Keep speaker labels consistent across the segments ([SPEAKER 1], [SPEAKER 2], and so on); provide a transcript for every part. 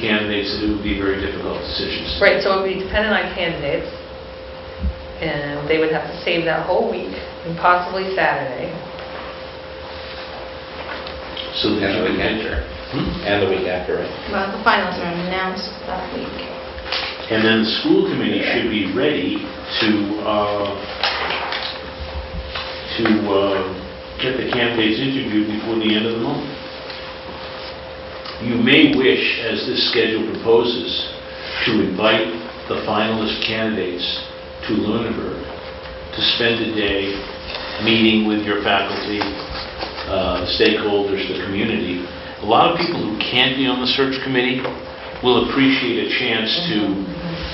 [SPEAKER 1] candidates, it would be very difficult decisions.
[SPEAKER 2] Right, so it would be dependent on candidates, and they would have to save that whole week, and possibly Saturday.
[SPEAKER 1] So that
[SPEAKER 3] And the
[SPEAKER 1] you
[SPEAKER 3] week
[SPEAKER 1] can
[SPEAKER 3] after.
[SPEAKER 1] Hmm?
[SPEAKER 3] And the week after, right?
[SPEAKER 4] Well, the finals are announced that week.
[SPEAKER 1] And then the school committee should be ready to, uh, to uh, get the candidates interviewed before the end of the month. You may wish, as this schedule proposes, to invite the finalist candidates to Lunenburg to spend a day meeting with your faculty, uh, stakeholders, the community. A lot of people who can't be on the search committee will appreciate a chance to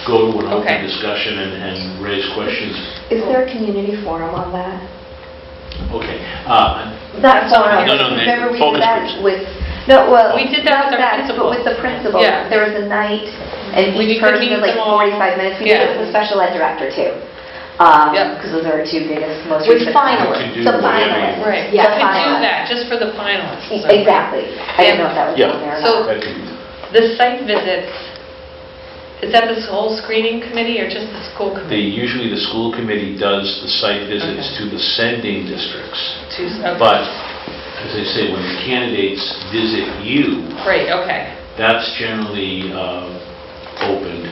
[SPEAKER 1] go to an open
[SPEAKER 2] Okay.
[SPEAKER 1] discussion and- and raise questions.
[SPEAKER 5] Is there a community forum on that?
[SPEAKER 1] Okay. uh,
[SPEAKER 5] Not forum,
[SPEAKER 1] No, no, the
[SPEAKER 5] remember we
[SPEAKER 1] focus
[SPEAKER 5] did that
[SPEAKER 1] groups.
[SPEAKER 5] with, no, well.
[SPEAKER 2] We did that with
[SPEAKER 5] not
[SPEAKER 2] our principal.
[SPEAKER 5] But with the principal,
[SPEAKER 2] Yeah.
[SPEAKER 5] there was a night, and
[SPEAKER 2] We
[SPEAKER 5] each
[SPEAKER 2] could
[SPEAKER 5] person
[SPEAKER 2] meet
[SPEAKER 5] had like
[SPEAKER 2] them all.
[SPEAKER 5] 45 minutes. We did
[SPEAKER 2] Yeah.
[SPEAKER 5] it with the special ed director too.
[SPEAKER 2] Yep.
[SPEAKER 5] Because those are our two biggest, most
[SPEAKER 2] With
[SPEAKER 5] recent.
[SPEAKER 2] finalists.
[SPEAKER 1] We could do
[SPEAKER 5] The
[SPEAKER 1] whatever.
[SPEAKER 5] finalists.
[SPEAKER 2] Right, we
[SPEAKER 5] Yeah,
[SPEAKER 2] could do
[SPEAKER 5] finalists.
[SPEAKER 2] that, just for the finalists.
[SPEAKER 5] E- Exactly. I didn't know if that was
[SPEAKER 1] Yeah.
[SPEAKER 5] on there or
[SPEAKER 2] So-
[SPEAKER 5] not.
[SPEAKER 1] that could be-
[SPEAKER 2] The site visits, is that this whole screening committee, or just the school
[SPEAKER 1] They,
[SPEAKER 2] committee?
[SPEAKER 1] usually the school committee does the site visits
[SPEAKER 2] Okay.
[SPEAKER 1] to the sending districts.
[SPEAKER 2] Tues- okay.
[SPEAKER 1] But, as I say, when the candidates visit you,
[SPEAKER 2] Great, okay,
[SPEAKER 1] that's generally um, opened,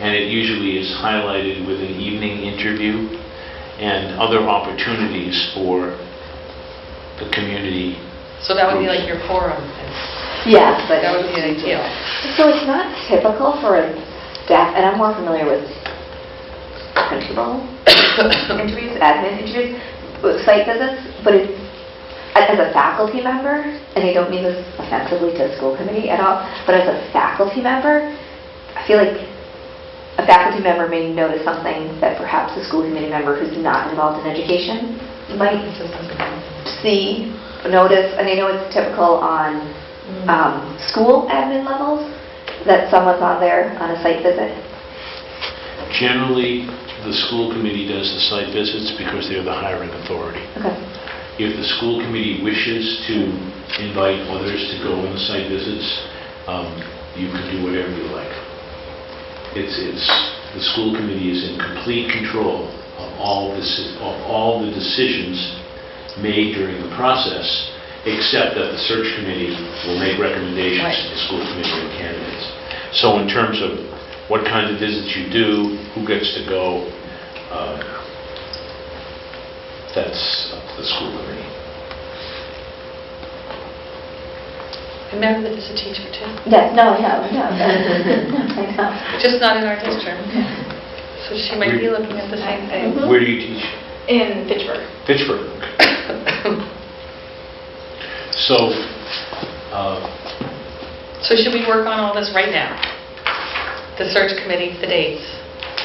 [SPEAKER 1] and it usually is highlighted with an evening interview and other opportunities for the community.
[SPEAKER 2] so that would be
[SPEAKER 1] Groups.
[SPEAKER 2] like your forum, then.
[SPEAKER 5] Yeah, but.
[SPEAKER 2] that would be ideal.
[SPEAKER 5] So it's not typical for a staff, and I'm more familiar with principal interviews, admin interviews, with site visits, but it's, as a faculty member, and I don't mean this offensively to the school committee at all, but as a faculty member, I feel like a faculty member may notice something that perhaps a school committee member who's not involved in education might see, notice, and I know it's typical on um, school admin levels, that someone's on there on a site visit.
[SPEAKER 1] Generally, the school committee does the site visits because they're the hiring authority.
[SPEAKER 5] Okay.
[SPEAKER 1] If the school committee wishes to invite others to go on the site visits, um, you can do whatever you like. It's, it's, the school committee is in complete control of all this, of all the decisions made during the process, except that the search committee will make recommendations to the school committee and candidates. So in terms of what kind of visits you do, who gets to go, uh, that's up to the school committee.
[SPEAKER 2] Remember that it's a teacher, too.
[SPEAKER 5] Yes, no, no, no. I know.
[SPEAKER 2] Just not in our district. So she might be looking at the same thing.
[SPEAKER 1] Where do you teach?
[SPEAKER 4] In Pittsburgh.
[SPEAKER 1] Pittsburgh. So, uh,
[SPEAKER 2] So should we work on all this right now? The search committee, the dates,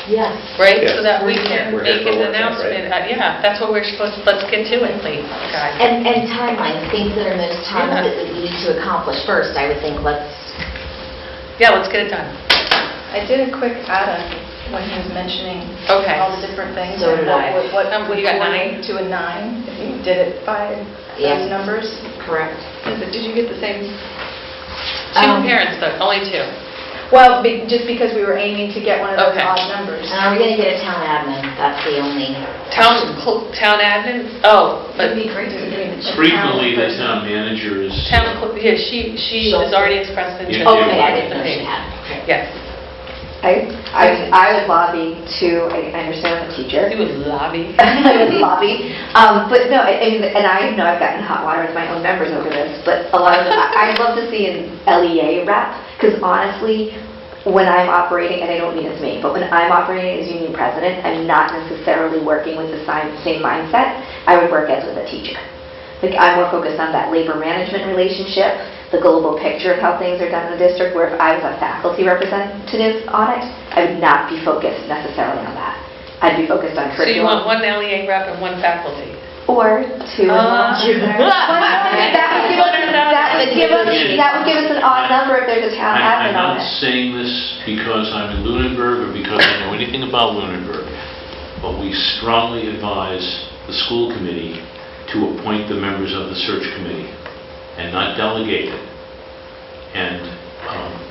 [SPEAKER 6] Yes.
[SPEAKER 2] right?
[SPEAKER 3] Yes.
[SPEAKER 2] So that we can
[SPEAKER 3] We're
[SPEAKER 2] make
[SPEAKER 3] here for
[SPEAKER 2] an
[SPEAKER 3] work, right?
[SPEAKER 2] announcement. Uh, Yeah, that's what we're supposed, let's get to it, please, guys.
[SPEAKER 6] And, and timeline, things that are most time
[SPEAKER 2] Yeah.
[SPEAKER 6] that we need to accomplish first, I would think, let's,
[SPEAKER 2] Yeah, let's get it done.
[SPEAKER 4] I did a quick add-up when he was mentioning
[SPEAKER 2] Okay.
[SPEAKER 4] all the different things.
[SPEAKER 6] So
[SPEAKER 4] and
[SPEAKER 6] did
[SPEAKER 4] what
[SPEAKER 6] I.
[SPEAKER 4] would- What
[SPEAKER 2] Um,
[SPEAKER 4] would
[SPEAKER 2] you got
[SPEAKER 4] coordinate
[SPEAKER 2] nine?
[SPEAKER 4] to a nine, if you did it by
[SPEAKER 6] Yeah.
[SPEAKER 4] those numbers.
[SPEAKER 6] correct?
[SPEAKER 4] Is it- Did you get the same?
[SPEAKER 2] Two
[SPEAKER 6] Um,
[SPEAKER 2] parents, though, only two.
[SPEAKER 4] Well, be- just because we were aiming to get one of those
[SPEAKER 2] Okay.
[SPEAKER 4] odd numbers.
[SPEAKER 6] And are we going to get a town admin? That's the only.
[SPEAKER 2] Town, cl- town admin, oh, but
[SPEAKER 4] It'd be great to get a town
[SPEAKER 1] frequently, the
[SPEAKER 4] person.
[SPEAKER 1] town manager is...
[SPEAKER 2] town, cl- yeah, she, she
[SPEAKER 6] She'll-
[SPEAKER 2] has already expressed interest.
[SPEAKER 1] Yeah.
[SPEAKER 6] oh, Okay, I
[SPEAKER 2] in
[SPEAKER 6] didn't
[SPEAKER 2] the
[SPEAKER 6] know she
[SPEAKER 2] thing.
[SPEAKER 6] had. Okay.
[SPEAKER 2] Yes.
[SPEAKER 5] I, I I would lobby to, I I understand I'm a teacher.
[SPEAKER 2] You would lobby.
[SPEAKER 5] I would lobby, um, but no, I, I mean, and I know I've gotten hot water with my own members over this, but a lot of, I- I'd love to see an LEA rep, because honestly, when I'm operating, and I don't mean as me, but when I'm operating as union president, I'm not necessarily working with the same, same mindset I would work as with a teacher. Like, I'm more focused on that labor management relationship, the global picture of how things are done in the district, where if I was a faculty representative on it, I would not be focused necessarily on that. I'd be focused on
[SPEAKER 2] So you
[SPEAKER 5] curriculum.
[SPEAKER 2] want one LEA rep and one faculty?
[SPEAKER 5] Or two.
[SPEAKER 2] Uh,
[SPEAKER 5] That would give us, that would give us, that would give us an odd number if there's a town
[SPEAKER 1] I- I'm
[SPEAKER 5] admin
[SPEAKER 1] not
[SPEAKER 5] on it.
[SPEAKER 1] saying this because I'm in Lunenburg or because I know anything about Lunenburg, but we strongly advise the school committee to appoint the members of the search committee and not delegate it. And um,